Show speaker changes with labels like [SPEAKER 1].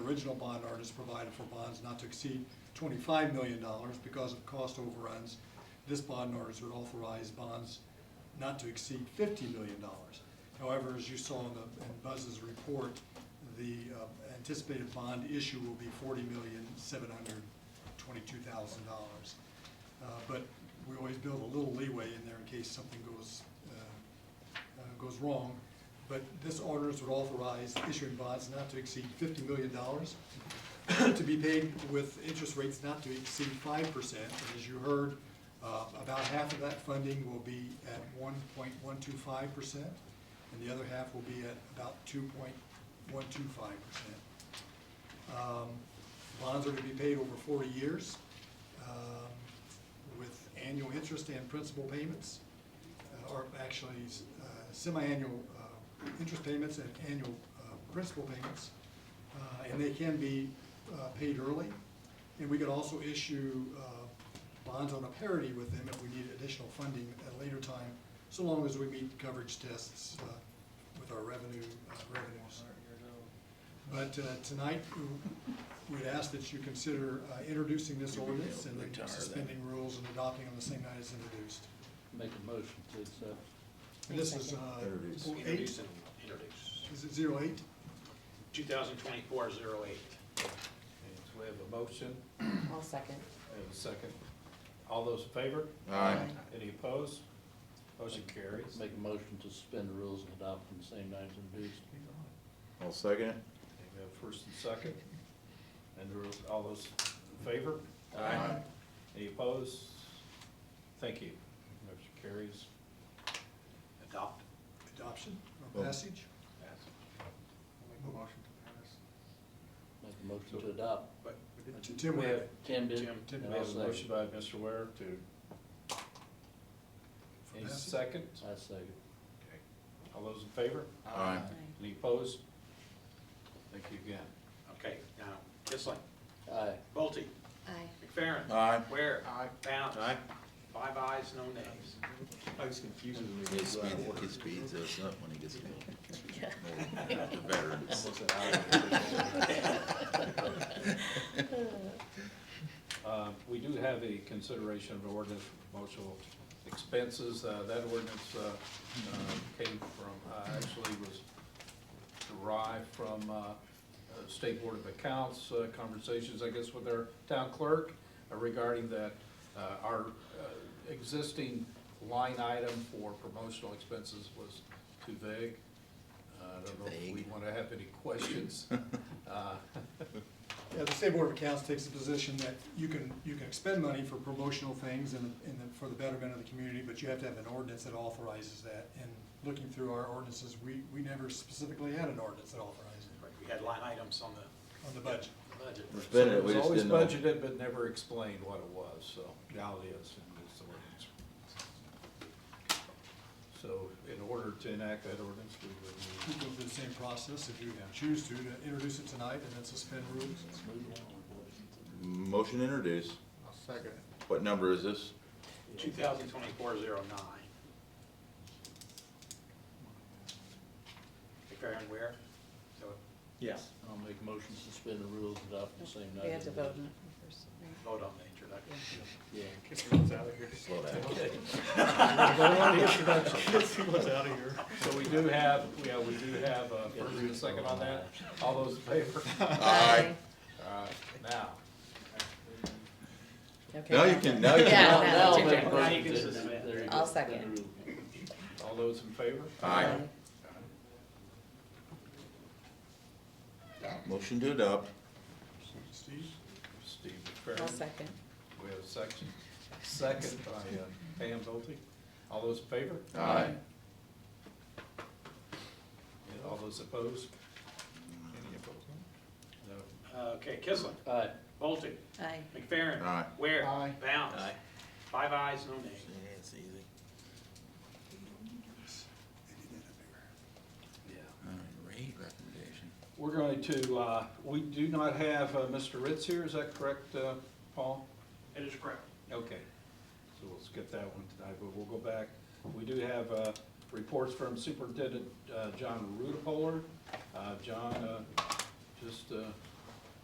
[SPEAKER 1] original bond ordinance provided for bonds not to exceed twenty-five million dollars because of cost overruns. This bond ordinance would authorize bonds not to exceed fifty million dollars. However, as you saw in the, in Buzz's report, the uh, anticipated bond issue will be forty million, seven hundred twenty-two thousand dollars. Uh, But we always build a little leeway in there in case something goes, uh, uh, goes wrong. But this ordinance would authorize issuing bonds not to exceed fifty million dollars to be paid with interest rates not to exceed five percent. And as you heard, uh, about half of that funding will be at one point one two five percent, and the other half will be at about two point one two five percent. Bonds are to be paid over forty years um, with annual interest and principal payments, uh, or actually uh, semi-annual uh, interest payments and annual uh, principal payments. Uh, And they can be uh, paid early. And we could also issue uh, bonds on a parity with them if we need additional funding at a later time, so long as we meet coverage tests uh, with our revenue, uh, revenues. But uh, tonight, we- we'd ask that you consider uh, introducing this
[SPEAKER 2] You'll be able
[SPEAKER 1] ordinance
[SPEAKER 2] to
[SPEAKER 1] and then
[SPEAKER 2] retire that.
[SPEAKER 1] suspending rules and adopting on the same night as introduced.
[SPEAKER 3] Make a motion to accept.
[SPEAKER 1] And this is uh,
[SPEAKER 4] Introduce.
[SPEAKER 1] oh, eight,
[SPEAKER 5] Introduce and introduce.
[SPEAKER 1] is it zero eight?
[SPEAKER 5] 2024-08.
[SPEAKER 4] So we have a motion,
[SPEAKER 6] I'll second.
[SPEAKER 4] we have a second. All those in favor?
[SPEAKER 2] Aye.
[SPEAKER 4] Any opposed? Motion carries.
[SPEAKER 3] Make a motion to suspend the rules and adopt on the same night as introduced.
[SPEAKER 2] I'll second it.
[SPEAKER 4] Okay, we have first and second. And there was- all those in favor?
[SPEAKER 2] Aye.
[SPEAKER 4] Any opposed? Thank you. Motion carries.
[SPEAKER 5] Adopt.
[SPEAKER 1] Adoption or
[SPEAKER 2] Oh.
[SPEAKER 1] passage?
[SPEAKER 7] Make a motion to pass.
[SPEAKER 3] Make a motion to adopt.
[SPEAKER 5] But
[SPEAKER 1] T- Tim,
[SPEAKER 4] We have,
[SPEAKER 3] Tim did.
[SPEAKER 5] Tim,
[SPEAKER 4] we
[SPEAKER 3] and I'll
[SPEAKER 4] have a
[SPEAKER 3] second.
[SPEAKER 4] motion by Mr. Ware to, any
[SPEAKER 1] passage?
[SPEAKER 4] second?
[SPEAKER 3] I second.
[SPEAKER 4] Okay. All those in favor?
[SPEAKER 2] Aye.
[SPEAKER 4] Any opposed? Thank you again.
[SPEAKER 5] Okay, now, Kissling,
[SPEAKER 3] Aye.
[SPEAKER 5] Bolte,
[SPEAKER 6] Aye.
[SPEAKER 5] McFerrin.
[SPEAKER 2] Aye.
[SPEAKER 5] Ware.
[SPEAKER 7] Aye.
[SPEAKER 5] Bounce.
[SPEAKER 2] Aye.
[SPEAKER 5] Five ayes, no nays.
[SPEAKER 4] I was confused when
[SPEAKER 2] He speeds, he speeds us up when he gets old. The veterans.
[SPEAKER 4] Uh, We do have a consideration of ordinance for promotional expenses. Uh, That ordinance uh, uh, came from, uh, actually was derived from uh, uh, State Board of Accounts uh, conversations, I guess, with our town clerk uh, regarding that uh, our uh, existing line item for promotional expenses was too vague. Uh, I don't know if we
[SPEAKER 2] Vague.
[SPEAKER 4] want to have any questions. Uh,
[SPEAKER 1] Yeah, the State Board of Accounts takes the position that you can, you can expend money for promotional things and, and the- for the betterment of the community, but you have to have an ordinance that authorizes that. And looking through our ordinances, we, we never specifically had an ordinance that authorized it
[SPEAKER 5] Right, We had line items on the
[SPEAKER 1] on the budget.
[SPEAKER 5] budget.
[SPEAKER 2] We're spending it, we
[SPEAKER 4] It was
[SPEAKER 2] just
[SPEAKER 4] always
[SPEAKER 2] didn't know.
[SPEAKER 4] budgeted, but never explained what it was, so now it is, and it's the ordinance. So in order to enact that ordinance, we
[SPEAKER 1] We
[SPEAKER 4] would
[SPEAKER 1] go through the same process if you choose to, to introduce it tonight and then suspend rules.
[SPEAKER 2] Motion to introduce.
[SPEAKER 7] I'll second it.
[SPEAKER 2] What number is this?
[SPEAKER 5] 2024-09. McFerrin, Ware. So
[SPEAKER 3] Yes. I'll make a motion to suspend the rules and adopt on the same night.
[SPEAKER 6] We
[SPEAKER 3] as
[SPEAKER 6] have to vote on
[SPEAKER 3] introduced.
[SPEAKER 6] it first, right?
[SPEAKER 5] vote on the introduction.
[SPEAKER 3] Yeah.
[SPEAKER 2] Slow down.
[SPEAKER 4] need. So we do have, yeah, we do have a first and a second on that. All those in favor?
[SPEAKER 2] Aye.
[SPEAKER 4] All right, now,
[SPEAKER 6] Okay.
[SPEAKER 2] Now you can, now you
[SPEAKER 6] Yeah,
[SPEAKER 2] can.
[SPEAKER 6] now
[SPEAKER 3] I'll
[SPEAKER 6] you
[SPEAKER 3] make a
[SPEAKER 6] can.
[SPEAKER 5] Now you
[SPEAKER 3] motion
[SPEAKER 5] can
[SPEAKER 3] to-
[SPEAKER 5] suspend.
[SPEAKER 3] there you go.
[SPEAKER 6] I'll second.
[SPEAKER 4] all those in favor?
[SPEAKER 2] Aye. Motion to adopt.
[SPEAKER 1] Steve?
[SPEAKER 4] Steve
[SPEAKER 6] I'll
[SPEAKER 4] McFerrin,
[SPEAKER 6] second.
[SPEAKER 4] we have a section, second by uh, Pam Bolte. All those in favor?
[SPEAKER 2] Aye.
[SPEAKER 4] And all those opposed? Any opposed? No.
[SPEAKER 5] Okay, Kissling,
[SPEAKER 3] Aye.
[SPEAKER 5] Bolte,
[SPEAKER 6] Aye.
[SPEAKER 5] McFerrin.
[SPEAKER 2] Aye.
[SPEAKER 5] Ware.
[SPEAKER 4] Aye.
[SPEAKER 5] Bounce.
[SPEAKER 2] Aye.
[SPEAKER 5] Five ayes, no nays.
[SPEAKER 2] It's easy.
[SPEAKER 4] Yeah.
[SPEAKER 2] All right, rate recommendation.
[SPEAKER 4] We're going to, uh, we do not have uh, Mr. Ritz here, is that correct, uh, Paul?
[SPEAKER 5] It is correct.
[SPEAKER 4] Okay, so we'll skip that one tonight, but we'll go back. We do have uh, reports from Superintendent uh, John Rudepoler. Uh, John uh, just uh,